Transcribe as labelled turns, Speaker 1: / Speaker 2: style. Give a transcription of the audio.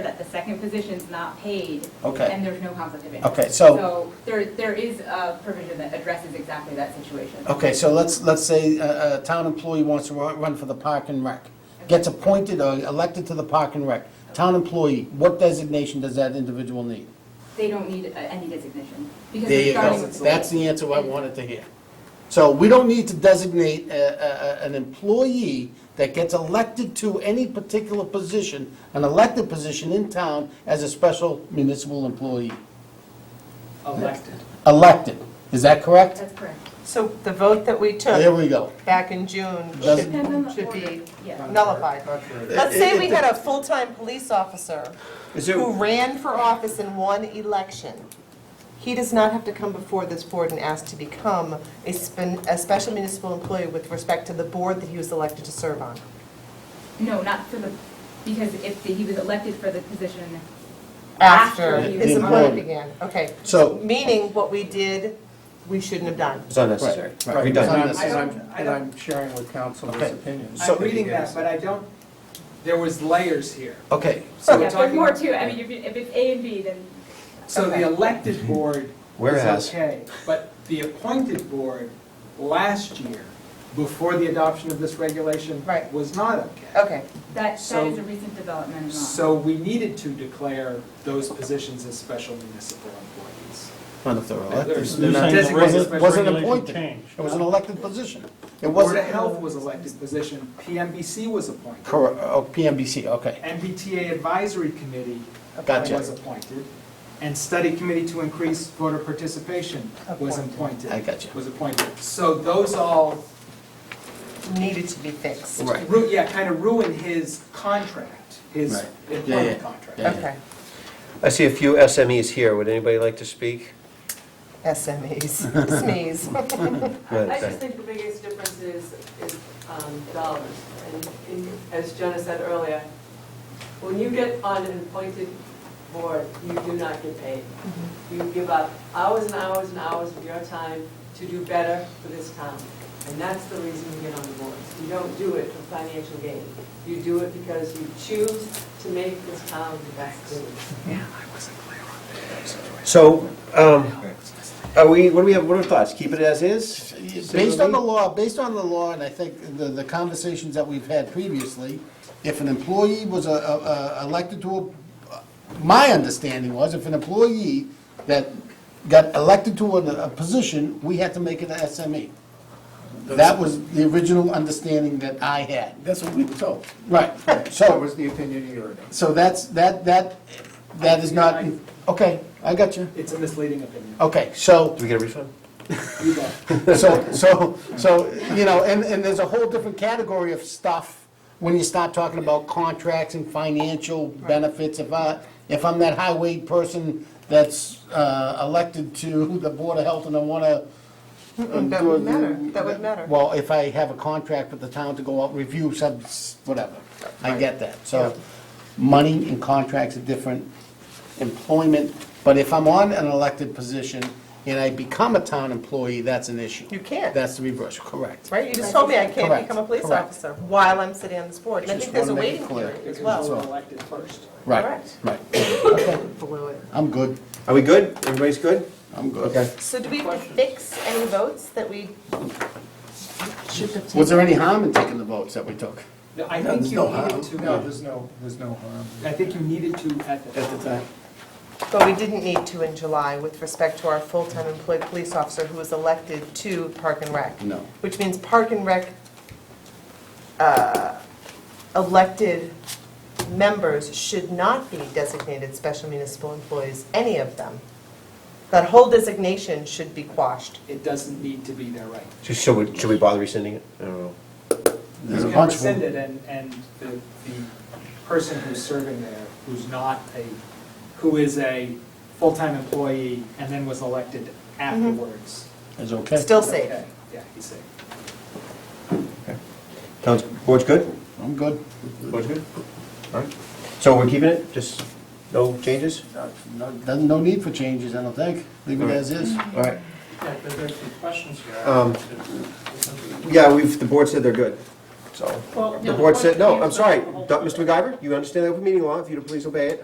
Speaker 1: second position's not paid.
Speaker 2: Okay.
Speaker 1: And there's no conflict of interest.
Speaker 2: Okay, so-
Speaker 1: there, there is a provision that addresses exactly that situation.
Speaker 2: Okay, so let's, let's say a, a town employee wants to ru- run for the park and rec, gets appointed or elected to the park and rec. Town employee, what designation does that individual need?
Speaker 1: They don't need uh, any designation. because
Speaker 2: There
Speaker 1: they're
Speaker 2: you
Speaker 1: starting
Speaker 2: go.
Speaker 1: with
Speaker 2: That's the answer I wanted to hear. So we don't need to designate a, a, a- an employee that gets elected to any particular position, an elected position in town as a special municipal employee.
Speaker 3: elected.
Speaker 2: Elected, is that correct?
Speaker 1: That's correct.
Speaker 4: So the vote that we
Speaker 2: There
Speaker 4: took
Speaker 2: we go.
Speaker 4: back in June
Speaker 2: Doesn't-
Speaker 1: Depends on the
Speaker 4: should, should be
Speaker 1: order, yeah.
Speaker 4: nullified.
Speaker 3: Contrary.
Speaker 4: Let's say we had a full-time police officer
Speaker 2: Is there-
Speaker 4: who ran for office in one election. He does not have to come before this board and ask to become a spin, a special municipal employee with respect to the board that he was elected to serve on.
Speaker 1: No, not for the, because if he was elected for the position
Speaker 4: After
Speaker 1: he
Speaker 4: his
Speaker 1: was
Speaker 4: employment
Speaker 1: hired.
Speaker 4: began, okay.
Speaker 2: So-
Speaker 4: Meaning what we did, we shouldn't have done.
Speaker 5: It's unnecessary.
Speaker 2: Right, right.
Speaker 5: Redundant.
Speaker 3: And
Speaker 2: Done.
Speaker 3: I'm- and I'm, and I'm sharing with council
Speaker 2: Okay.
Speaker 3: this opinion.
Speaker 6: So-
Speaker 3: I'm reading that, but I don't, there was layers here.
Speaker 2: Okay,
Speaker 3: So
Speaker 1: Yeah,
Speaker 3: we're
Speaker 1: there's
Speaker 3: talking.
Speaker 1: more to it. I mean, if, you- if it's A and B, then
Speaker 3: So the elected board
Speaker 5: Whereas-
Speaker 3: is okay, but the appointed board last year, before the adoption of this regulation,
Speaker 4: Right.
Speaker 3: was not okay.
Speaker 4: Okay,
Speaker 1: that, that
Speaker 3: So-
Speaker 1: is a recent development in law.
Speaker 3: So we needed to declare those positions as special municipal employees.
Speaker 2: Not if they're elected.
Speaker 3: There's-
Speaker 7: You're saying the
Speaker 3: Designated
Speaker 7: regu-
Speaker 3: special
Speaker 2: wasn't
Speaker 7: regulation
Speaker 2: appointed.
Speaker 7: changed.
Speaker 2: It was an elected position. It
Speaker 3: Board of
Speaker 2: wasn't,
Speaker 3: Health was elected position, PMBC was appointed.
Speaker 2: correct, oh, PMBC, okay,
Speaker 3: MBTA Advisory Committee
Speaker 2: Gotcha.
Speaker 3: was appointed, and Study Committee to Increase Voter Participation was appointed.
Speaker 2: I gotcha.
Speaker 3: Was appointed. So those all,
Speaker 4: needed to be fixed.
Speaker 2: Right.
Speaker 3: ru- yeah, kind of ruined his contract, his
Speaker 2: Right. Yeah, yeah,
Speaker 3: employment contract.
Speaker 2: yeah.
Speaker 4: Okay,
Speaker 5: I see a few SMEs here. Would anybody like to speak?
Speaker 4: SMEs, SMEs.
Speaker 5: Go ahead,
Speaker 8: I just
Speaker 5: Diane.
Speaker 8: think the biggest difference is, is um, dollars. And in- as Jenna said earlier, when you get on an appointed board, you do not get paid. You give up hours and hours and hours of your time to do better for this town. And that's the reason you get on the boards. You don't do it for financial gain. You do it because you choose to make this town the best it is.
Speaker 5: So, um, are we, what do we have, what are our thoughts? Keep it as is?
Speaker 2: Based on the law, based on the law, and I think the, the conversations that we've had previously, if an employee was a, a, a- elected to a, my understanding was, if an employee that got elected to a, a position, we had to make it an SME. E. That was the original understanding that I had.
Speaker 9: That's what we were told.
Speaker 2: Right,
Speaker 9: That
Speaker 2: so,
Speaker 9: was the opinion a year ago.
Speaker 2: so that's, that, that, that is not, okay, I got you.
Speaker 3: It's a misleading opinion.
Speaker 2: Okay, so.
Speaker 5: Do we get a refund?
Speaker 3: You bet.
Speaker 2: So, so, so, you know, and, and there's a whole different category of stuff when you start talking about contracts and financial benefits. If I, if I'm that highway person that's uh, elected to the Board of Health and I wanna. um,
Speaker 4: That
Speaker 2: do
Speaker 4: would
Speaker 2: a-
Speaker 4: matter, that would matter.
Speaker 2: Well, if I have a contract with the town to go out and review some, whatever, I get that. So, money and contracts are different, employment, but if I'm on an elected position and I become a town employee, that's an issue.
Speaker 4: You can't.
Speaker 2: That's the reverse, correct.
Speaker 4: Right, you just told me I can't
Speaker 2: Correct,
Speaker 4: become a police
Speaker 2: correct.
Speaker 4: officer while I'm sitting on this board, and I
Speaker 2: Just
Speaker 4: think there's a
Speaker 2: wanna make it
Speaker 4: waiting
Speaker 2: clear.
Speaker 4: period as
Speaker 3: Because we were
Speaker 4: well.
Speaker 3: elected first.
Speaker 2: Right,
Speaker 4: Correct.
Speaker 2: right.
Speaker 4: Blew it.
Speaker 2: I'm good,
Speaker 5: Are we good? Everybody's good?
Speaker 2: I'm good.
Speaker 5: Okay.
Speaker 4: So do we have to fix any votes that we should have taken?
Speaker 2: Was there any harm in taking the votes that we took?
Speaker 3: No, I
Speaker 9: No,
Speaker 3: think
Speaker 9: there's
Speaker 3: you
Speaker 9: no
Speaker 3: needed
Speaker 9: harm.
Speaker 3: to.
Speaker 9: No, there's no, there's no harm.
Speaker 3: I think you needed to at the
Speaker 9: At the time.
Speaker 4: But we didn't need to in July with respect to our full-time employed police officer who was elected to Park and Rec.
Speaker 2: No.
Speaker 4: Which means Park and Rec uh, elected members should not be designated special municipal employees, any of them. That whole designation should be quashed.
Speaker 3: It doesn't need to be there right
Speaker 5: So Should we, should we bother rescinding it? I don't know.
Speaker 2: There's a
Speaker 3: You can
Speaker 2: bunch of them.
Speaker 3: rescind it, and, and the, the person who's serving there, who's not a, who is a full-time employee and then was elected afterwards.
Speaker 2: Is okay?
Speaker 4: Mm-hmm. Still safe.
Speaker 3: Okay, Yeah, he's safe.
Speaker 5: Sounds, board's good?
Speaker 2: I'm good.
Speaker 5: Board's good? All right. So we're keeping it? Just no changes?
Speaker 2: No, no need for changes, I don't think. Leave it as is.
Speaker 5: All right.
Speaker 7: Yeah, but there's some questions here.
Speaker 2: Oh.
Speaker 5: Um, Yeah, we've, the board said they're good, so.
Speaker 8: Well,
Speaker 5: The board said, no, I'm sorry, Mr. MacGyver, you understand the open meeting law, if you'd please obey it,